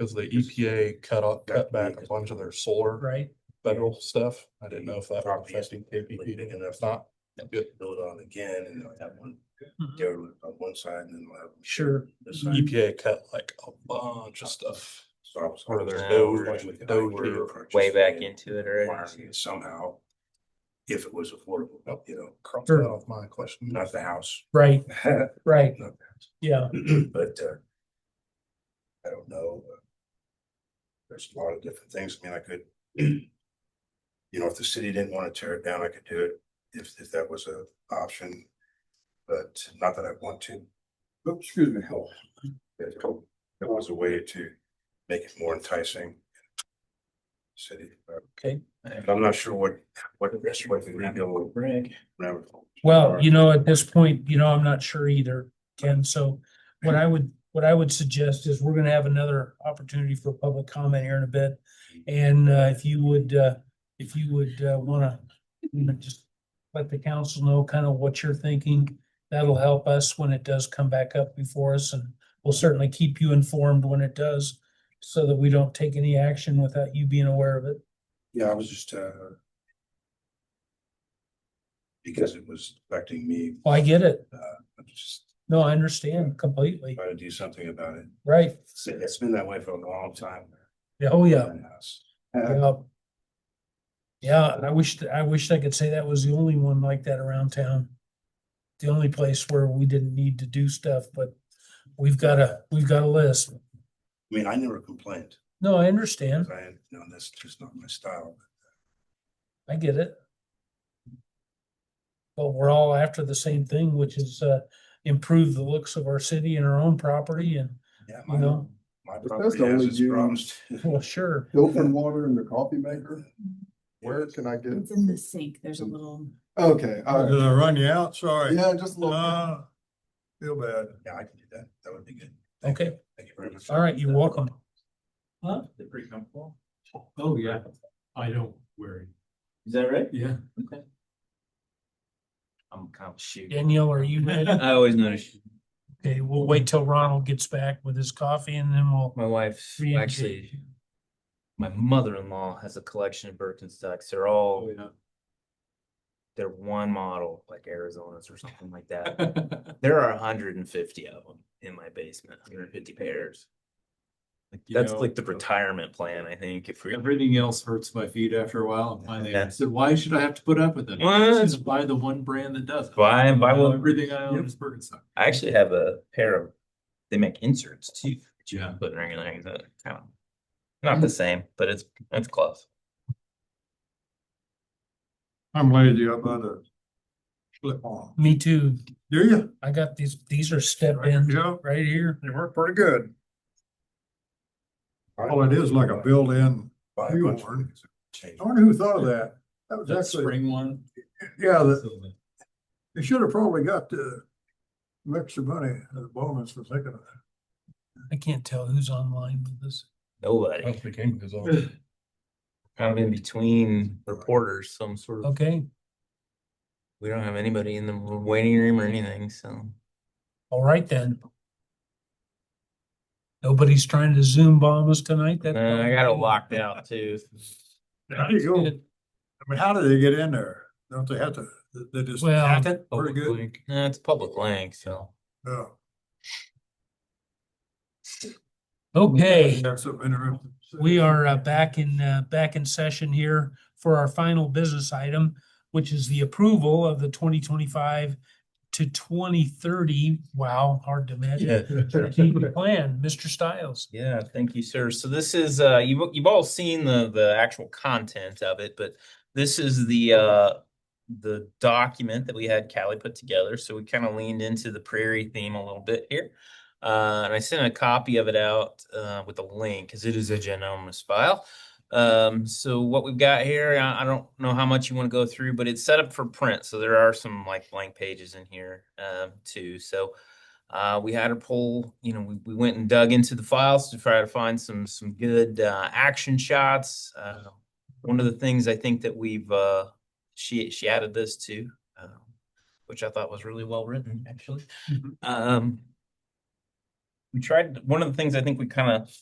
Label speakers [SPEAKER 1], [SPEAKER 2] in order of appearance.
[SPEAKER 1] Cause the EPA cut off,
[SPEAKER 2] Got
[SPEAKER 1] cut back a
[SPEAKER 2] big.
[SPEAKER 1] bunch of their solar
[SPEAKER 3] right?
[SPEAKER 1] federal stuff. I didn't know if that was
[SPEAKER 2] Property
[SPEAKER 1] affecting KPP and if not, good.
[SPEAKER 2] Build on again and they'll have one
[SPEAKER 3] Mhm.
[SPEAKER 2] derelict on one side and then we'll have.
[SPEAKER 3] Sure.
[SPEAKER 2] This side.
[SPEAKER 1] EPA cut like E a bunch of stuff.
[SPEAKER 2] So I was-
[SPEAKER 1] Or their
[SPEAKER 4] No,
[SPEAKER 1] nose,
[SPEAKER 4] we're
[SPEAKER 1] like
[SPEAKER 2] Originally,
[SPEAKER 1] with
[SPEAKER 2] I
[SPEAKER 1] nose
[SPEAKER 2] were
[SPEAKER 1] here.
[SPEAKER 2] purchased
[SPEAKER 4] way back
[SPEAKER 2] land,
[SPEAKER 4] into it already.
[SPEAKER 2] acquiring it Somehow, if it was affordable, you know,
[SPEAKER 1] Cross
[SPEAKER 3] Sure.
[SPEAKER 1] that off my question.
[SPEAKER 2] not the house.
[SPEAKER 3] Right,
[SPEAKER 2] Not
[SPEAKER 3] right,
[SPEAKER 2] the
[SPEAKER 3] yeah,
[SPEAKER 2] but uh, I don't know. uh, There's a lot of different things. I mean, I could, you know, if the city didn't want to tear it down, I could do it if, if that was a option. But not that I want to. Oops, Excuse me. Oh, That that was a way to make it more enticing. City, but
[SPEAKER 3] okay.
[SPEAKER 2] I'm not sure what, what, what the rebuild. whatever.
[SPEAKER 3] Well, you know, at this point, you know, I'm not sure either, Ken, so what I would, what I would suggest is we're gonna have another opportunity for public comment here in a bit. And uh, if you would, uh, if you would uh, wanna, you know, just let the council know kind of what you're thinking, that'll help us when it does come back up before us, and we'll certainly keep you informed when it does, so that we don't take any action without you being aware of it.
[SPEAKER 2] Yeah, I was just, uh. Because it was affecting me,
[SPEAKER 3] Well, I get it.
[SPEAKER 2] I'm just
[SPEAKER 3] No, I understand completely.
[SPEAKER 2] trying to do something about it.
[SPEAKER 3] Right.
[SPEAKER 2] It's- It's been that way for a long time.
[SPEAKER 3] Yeah, Oh, yeah.
[SPEAKER 2] And, uh,
[SPEAKER 3] Yeah. Yeah, and I wish, th- I wish I could say that was the only one like that around town. The only place where we didn't need to do stuff, but we've got a, we've got a list.
[SPEAKER 2] I mean, I never complained,
[SPEAKER 3] No, I
[SPEAKER 2] 'cause
[SPEAKER 3] understand.
[SPEAKER 2] I, you know, that's just not my style.
[SPEAKER 3] I get it. But we're all after the same thing, which is uh improve the looks of our city and our own property and,
[SPEAKER 2] Yeah,
[SPEAKER 3] you
[SPEAKER 2] my,
[SPEAKER 3] know,
[SPEAKER 2] my
[SPEAKER 5] that's
[SPEAKER 2] property
[SPEAKER 5] the
[SPEAKER 2] has
[SPEAKER 5] only
[SPEAKER 2] its
[SPEAKER 5] union-
[SPEAKER 2] problems.
[SPEAKER 3] well, sure.
[SPEAKER 5] Open water in the coffee maker? Where can I get? it?
[SPEAKER 6] It's in the sink. There's a little.
[SPEAKER 5] Okay, all
[SPEAKER 7] Did
[SPEAKER 5] right.
[SPEAKER 7] I run you out? Sorry.
[SPEAKER 5] Yeah, just a little.
[SPEAKER 7] Ah, Feel bad.
[SPEAKER 2] Yeah, I can do that, that would be good. Thank you.
[SPEAKER 3] Okay,
[SPEAKER 2] Thank you very much.
[SPEAKER 3] all right, you're welcome. Huh?
[SPEAKER 4] They're pretty comfortable.
[SPEAKER 8] Oh, yeah, I don't worry,
[SPEAKER 4] Is that right?
[SPEAKER 8] yeah.
[SPEAKER 4] Okay. I'm kind of shoot.
[SPEAKER 3] Danielle, are you ready?
[SPEAKER 4] I always notice
[SPEAKER 3] Okay, we'll wait till Ronald gets back with his coffee and then we'll.
[SPEAKER 4] my wife's
[SPEAKER 3] re-engage.
[SPEAKER 4] actually, my mother-in-law has a collection of Birkenstocks. They're all, they're one model, like Arizona's or something like that. There are hundred and fifty of them in my basement, hundred and fifty pairs. Like,
[SPEAKER 8] You
[SPEAKER 4] That's
[SPEAKER 8] know,
[SPEAKER 4] like the retirement plan, I think, if we.
[SPEAKER 8] Everything else hurts my feet after a while, and finally I
[SPEAKER 4] Yeah.
[SPEAKER 8] said, why should I have to put up with it?
[SPEAKER 4] Well,
[SPEAKER 8] Let's
[SPEAKER 4] it's-
[SPEAKER 8] Just buy the one brand that does. it."
[SPEAKER 4] Buy- buy
[SPEAKER 8] Now
[SPEAKER 4] one-
[SPEAKER 8] Everything I own
[SPEAKER 4] Yep.
[SPEAKER 8] is Birkenstock.
[SPEAKER 4] I actually have a pair of, they make inserts too. that you can
[SPEAKER 8] Yeah.
[SPEAKER 4] Put in regular things that kind of, not the same, but it's, it's close.
[SPEAKER 7] I'm lazy. I'm about to slip on.
[SPEAKER 3] Me too.
[SPEAKER 7] Do you?
[SPEAKER 3] I got these, these are step
[SPEAKER 7] Right,
[SPEAKER 3] ins
[SPEAKER 7] Joe?
[SPEAKER 3] right here.
[SPEAKER 7] They work pretty good. All it is like a built-in.
[SPEAKER 2] Buy a
[SPEAKER 7] You
[SPEAKER 2] bunch of
[SPEAKER 7] learn.
[SPEAKER 2] things and change.
[SPEAKER 7] I wonder who thought of that? That was
[SPEAKER 8] That
[SPEAKER 7] actually,
[SPEAKER 8] spring one.
[SPEAKER 7] yeah, that,
[SPEAKER 8] so the-
[SPEAKER 7] they should have probably got the extra money as a bonus for thinking of that.
[SPEAKER 3] I can't tell who's online with this.
[SPEAKER 1] I
[SPEAKER 4] Nobody,
[SPEAKER 1] was thinking, 'cause I was-
[SPEAKER 4] kind of in between reporters, some sort of,
[SPEAKER 3] Okay,
[SPEAKER 4] we don't have anybody in the waiting room or anything, so.
[SPEAKER 3] all right then. Nobody's trying to Zoom bomb us tonight. That.
[SPEAKER 4] No, I got it locked out too.
[SPEAKER 7] How do you go? I mean, how do they get in there? Don't they have to, they just
[SPEAKER 3] Well,
[SPEAKER 7] hack it? Pretty
[SPEAKER 4] Public
[SPEAKER 7] good. Oh.
[SPEAKER 4] link. No, it's public link, so.
[SPEAKER 7] Yeah.
[SPEAKER 3] Okay,
[SPEAKER 7] That's something interesting.
[SPEAKER 3] we are uh, back in, uh, back in session here for our final business item, which is the approval of the twenty twenty-five to twenty thirty. Wow, hard to imagine. strategic plan, Mr. Stiles.
[SPEAKER 4] Yeah, thank you, sir. So this is, uh, you've, you've all seen the, the actual content of it, but this is the, uh, the document that we had Callie put together. So we kind of leaned into the prairie theme a little bit here. Uh, and I sent a copy of it out, uh, with a link because it is a ginormous file. Um, so what we've got here, I, I don't know how much you want to go through, but it's set up for print. So there are some like blank pages in here, um, too. So, uh, we had a poll, you know, we, we went and dug into the files to try to find some some good uh, action shots. Uh, one of the things I think that we've uh, she she added this to, uh, which I thought was really well written actually. Um, we tried one of the things I think we kind of